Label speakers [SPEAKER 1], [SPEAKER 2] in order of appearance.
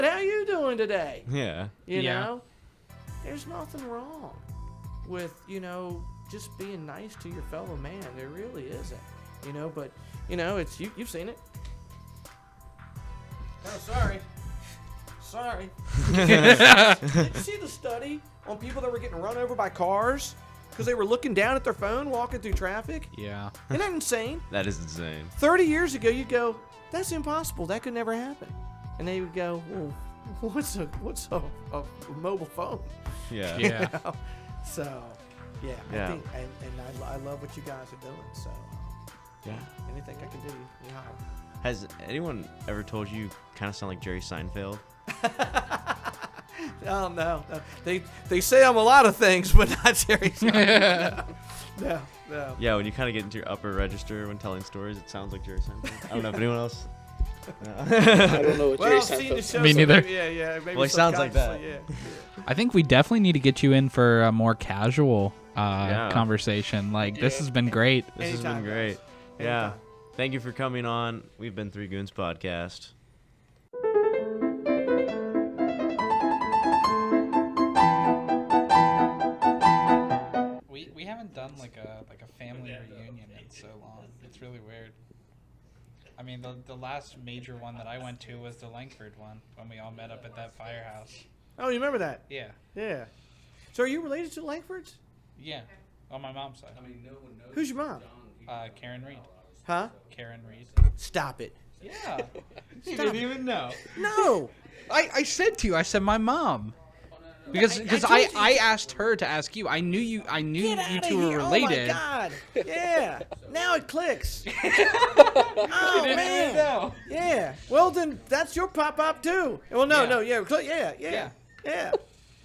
[SPEAKER 1] doing today?
[SPEAKER 2] Yeah.
[SPEAKER 1] You
[SPEAKER 3] Yeah.
[SPEAKER 1] know, there's nothing wrong with you know just being nice to your fellow man. There really isn't. You know, but you know it's you. You've seen it. Oh, sorry. Sorry. Did you see the study on people that were getting run over by cars because they were looking down at their phone walking through traffic?
[SPEAKER 3] Yeah.
[SPEAKER 1] Isn't that insane?
[SPEAKER 2] That is insane.
[SPEAKER 1] 30 years ago, you'd go, that's impossible. That could never happen. And they would go, well, what's a what's a, a mobile phone?
[SPEAKER 2] Yeah.
[SPEAKER 3] Yeah.
[SPEAKER 1] so, yeah,
[SPEAKER 2] Yeah.
[SPEAKER 1] I think, and, and I, I love what you guys are doing. So,
[SPEAKER 2] Yeah.
[SPEAKER 1] anything I can do, you holler.
[SPEAKER 2] Has anyone ever told you kind of sound like Jerry Seinfeld?
[SPEAKER 1] Oh no, no. they they say I'm a lot of things, but not Jerry. Seinfeld. no, no, no.
[SPEAKER 2] Yeah, when you kind of get into your upper register when telling stories, it sounds like Jerry Seinfeld. I don't know if anyone else.
[SPEAKER 4] I don't know what
[SPEAKER 1] Well,
[SPEAKER 4] Jerry
[SPEAKER 1] I've seen the
[SPEAKER 4] Seinfeld.
[SPEAKER 1] show.
[SPEAKER 3] Me
[SPEAKER 1] so
[SPEAKER 3] neither.
[SPEAKER 1] maybe- Yeah, yeah. Maybe
[SPEAKER 2] Well, he sounds like that.
[SPEAKER 1] subconsciously, Yeah.
[SPEAKER 3] I think we definitely need to get you in for a more casual uh,
[SPEAKER 2] Yeah.
[SPEAKER 3] conversation. Like this has been great.
[SPEAKER 2] This has
[SPEAKER 1] Anytime,
[SPEAKER 2] been
[SPEAKER 1] guys.
[SPEAKER 2] great. Yeah.
[SPEAKER 1] Anytime.
[SPEAKER 2] Thank you for coming on. We've been Three Goons Podcast.
[SPEAKER 3] We, we haven't done like a like a family reunion in so long. It's really weird. I mean, the, the last major one that I went to was the Langford one when we all met up at that firehouse.
[SPEAKER 1] Oh, you remember that?
[SPEAKER 3] Yeah,
[SPEAKER 1] Yeah. So, are you related to the Langfords?
[SPEAKER 3] yeah, on my mom's side.
[SPEAKER 1] Who's your mom?
[SPEAKER 3] Uh, Karen Reed.
[SPEAKER 1] Huh?
[SPEAKER 3] Karen Reed.
[SPEAKER 1] Stop it.
[SPEAKER 3] Yeah. you
[SPEAKER 1] Stop
[SPEAKER 3] didn't even know.
[SPEAKER 1] No.
[SPEAKER 3] I, I said to you, I said my mom. Because
[SPEAKER 1] I- I
[SPEAKER 3] because
[SPEAKER 1] told
[SPEAKER 3] I,
[SPEAKER 1] you-
[SPEAKER 3] I, asked her to ask you. I knew you I knew
[SPEAKER 1] Get
[SPEAKER 3] you
[SPEAKER 1] out
[SPEAKER 3] two
[SPEAKER 1] of
[SPEAKER 3] were
[SPEAKER 1] here.
[SPEAKER 3] related.
[SPEAKER 1] Oh my god. Yeah. Now it clicks. oh man. Yeah. Well then, that's your pop up too. Well, no,
[SPEAKER 3] Yeah.
[SPEAKER 1] no, yeah, cl- yeah, yeah,
[SPEAKER 3] Yeah.
[SPEAKER 1] yeah.